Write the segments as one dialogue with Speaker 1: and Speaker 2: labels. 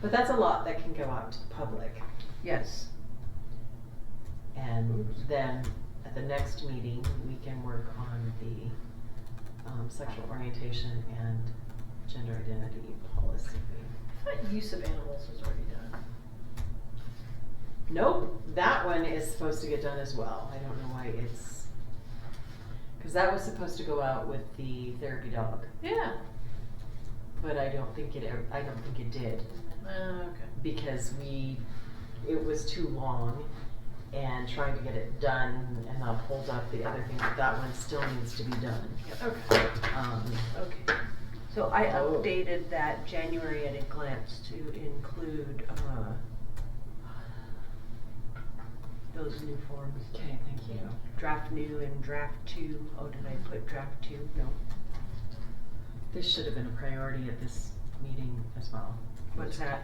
Speaker 1: But that's a lot that can go out to the public.
Speaker 2: Yes.
Speaker 1: And then at the next meeting, we can work on the um, sexual orientation and gender identity policy.
Speaker 3: I thought use of animals was already done.
Speaker 1: Nope, that one is supposed to get done as well. I don't know why it's, because that was supposed to go out with the therapy dog,
Speaker 3: Yeah.
Speaker 1: but I don't think it, ever- I don't think it did.
Speaker 3: Uh, okay.
Speaker 1: because we it was too long and trying to get it done and not hold up the other thing but that one still needs to be done
Speaker 3: Okay.
Speaker 1: um,
Speaker 3: Okay.
Speaker 2: So I
Speaker 1: Oh.
Speaker 2: updated that January at a glance to include, uh, those new forms,
Speaker 1: okay thank you
Speaker 2: draft new and draft two. Oh, did I put draft two? No.
Speaker 1: this should have been a priority at this meeting as well
Speaker 2: What's that?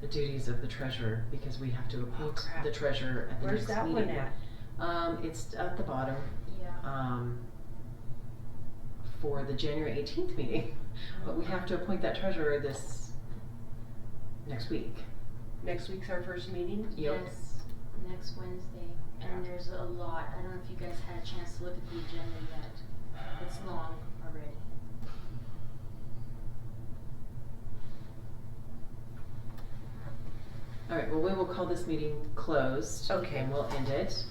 Speaker 1: the duties of the treasurer because we have to appoint
Speaker 2: crap.
Speaker 1: the treasurer at the
Speaker 2: Where's
Speaker 1: next
Speaker 2: that
Speaker 1: meeting
Speaker 2: one at?
Speaker 1: um it's at the bottom
Speaker 3: Yeah.
Speaker 1: um for the January 18th meeting but we have to appoint that treasurer this next week
Speaker 2: Next week's our first meeting?
Speaker 1: Yep.
Speaker 4: Yes, next Wednesday, and there's a lot, I don't know if you guys had a chance to look at the agenda yet, it's long already.
Speaker 1: All right, well, we will call this meeting closed.
Speaker 2: Okay.
Speaker 1: And we'll end it.